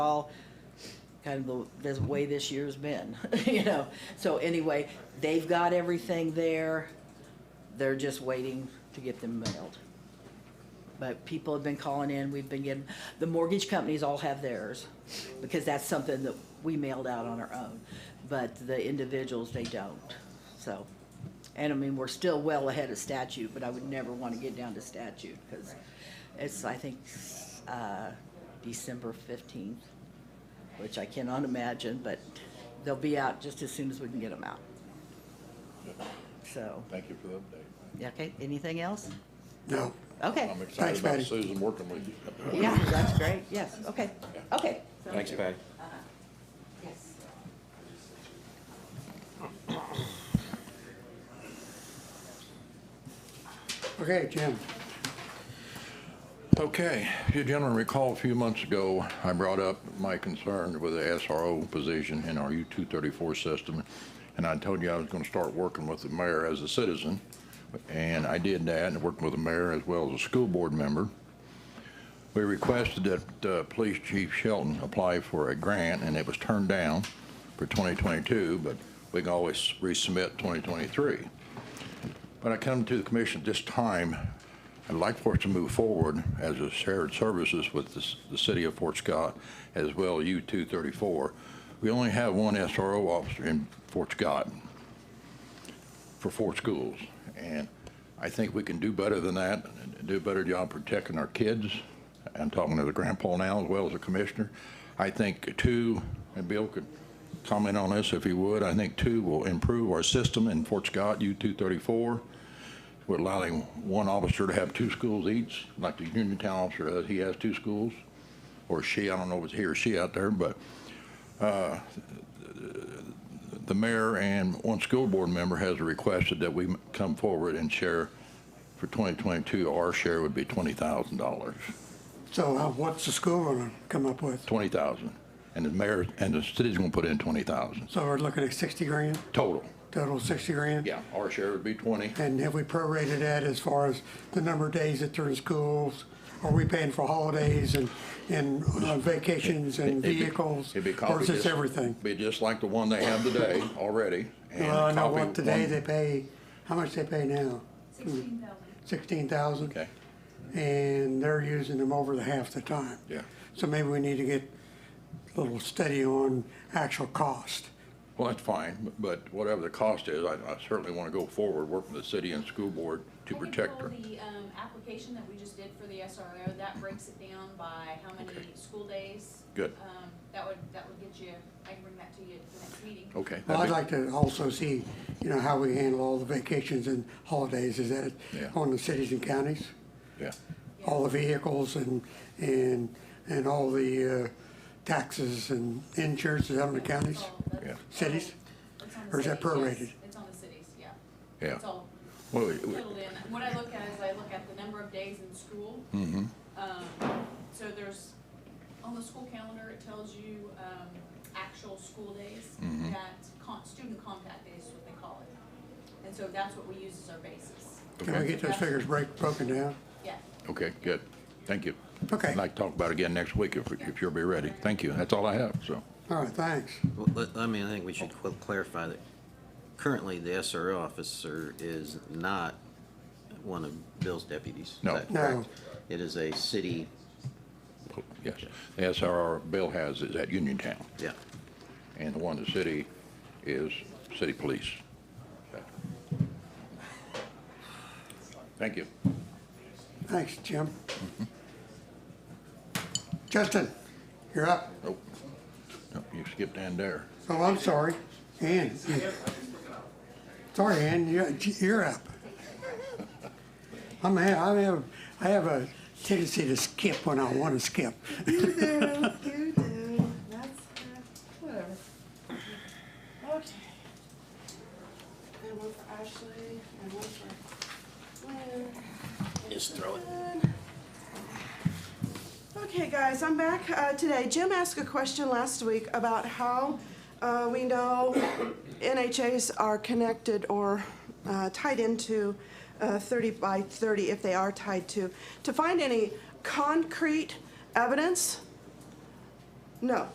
all kind of the, the way this year's been, you know. So anyway, they've got everything there. They're just waiting to get them mailed. But people have been calling in, we've been getting, the mortgage companies all have theirs because that's something that we mailed out on our own. But the individuals, they don't, so. And I mean, we're still well ahead of statute, but I would never want to get down to statute because it's, I think, uh, December fifteenth, which I cannot imagine, but they'll be out just as soon as we can get them out. So, Thank you for the update. yeah, okay, anything else? No, Okay, I'm excited Thanks, about Patty. Susan working with you. yeah, that's great, yes, okay, okay. Thanks, Patty. okay, Jim, Okay, if you gentlemen recall a few months ago, I brought up my concern with the SRO position in our U-234 system, and I told you I was going to start working with the mayor as a citizen, and I did that, and worked with the mayor as well as a school board member. We requested that uh, Police Chief Shelton apply for a grant, and it was turned down for 2022, but we can always resubmit 2023. When I come to the commission at this time, I'd like for us to move forward as a shared services with the, s- the city of Fort Scott as well U two thirty-four. We only have one SRO officer in Fort Scott for four schools. And I think we can do better than that, and do a better job protecting our kids. I'm talking to the grandpa now as well as the commissioner. I think two, and Bill could comment on this if he would, I think two will improve our system in Fort Scott, U-234. We're allowing one officer to have two schools each, like the Uniontown officer does, he has two schools. Or she, I don't know if it's he or she out there, but the mayor and one school board member has requested that we come forward and share for 2022, our share would be $20,000, so uh, what's the school gonna come up with? 20,000. And the mayor, and the city's gonna put in 20,000 So we're looking at sixty grand, total. total sixty grand? Yeah, our share would be 20. And have we prorated that as far as the number of days that they're in schools? Are we paying for holidays and, and uh, vacations and It'd be- vehicles? it'd be Or copied is this just- everything? Be just like the one they have today already. and Well, I know copy what today one- they pay, how much they pay now? Sixteen thousand? Okay, And they're using them over the half the time. yeah. So maybe we need to get a little steady on actual cost. Well, that's fine, but- but whatever the cost is, I I certainly want to go forward, work with the city and school board to protect her. I can pull the, um, application that we just did for the SRO, that breaks it down by how many school days. Good. Um, that would, that would get you, I can bring that to you at the next meeting. Okay. Well, that'd I'd be- like to also see, you know, how we handle all the vacations and holidays, is that Yeah. on the cities and counties? Yeah, All the vehicles and, and, and all the uh, taxes and insurances out in the counties? That's all- that's Yeah. all- Cities? it's on the Or is that cities, yes. prorated? It's on the cities, yeah. Yeah. It's all well, we- we- totaled in. What I look at is I look at the number of days in school. Um, so there's, on the school calendar, it tells you, um, actual school days, that con, student contact days is what they call it. And so that's what we use as our basis. Can we Okay. get those figures break, broken down? Yeah. Okay, good. Thank you. Okay. I'd like to talk about it again next week if, if you'll be ready. Thank you. That's all I have, so. All right, thanks. Well, let- I mean, I think we should cl- clarify that currently the SRO officer is not one of Bill's deputies. Is No. that No. correct? It is a city, Yes, the SRR Bill has is at Uniontown, yeah. and the one in the city is city police. Thank you. Thanks, Jim. Mm-hmm. Justin, you're up. Nope, Nope, you skipped in there. Oh, I'm sorry. Ann. Sorry, Ann, you're, you're up. I'm, ha- I have, I have a tendency to skip when I want to skip. You do, you do. That's, uh, whatever. Okay. And one for Ashley, and one for Lynn. Just throw it. Okay, guys, I'm back uh, today. Jim asked a question last week about how uh, we know NHAs are connected or uh, tied into uh, 30 by 30 if they are tied to. To find any concrete evidence No,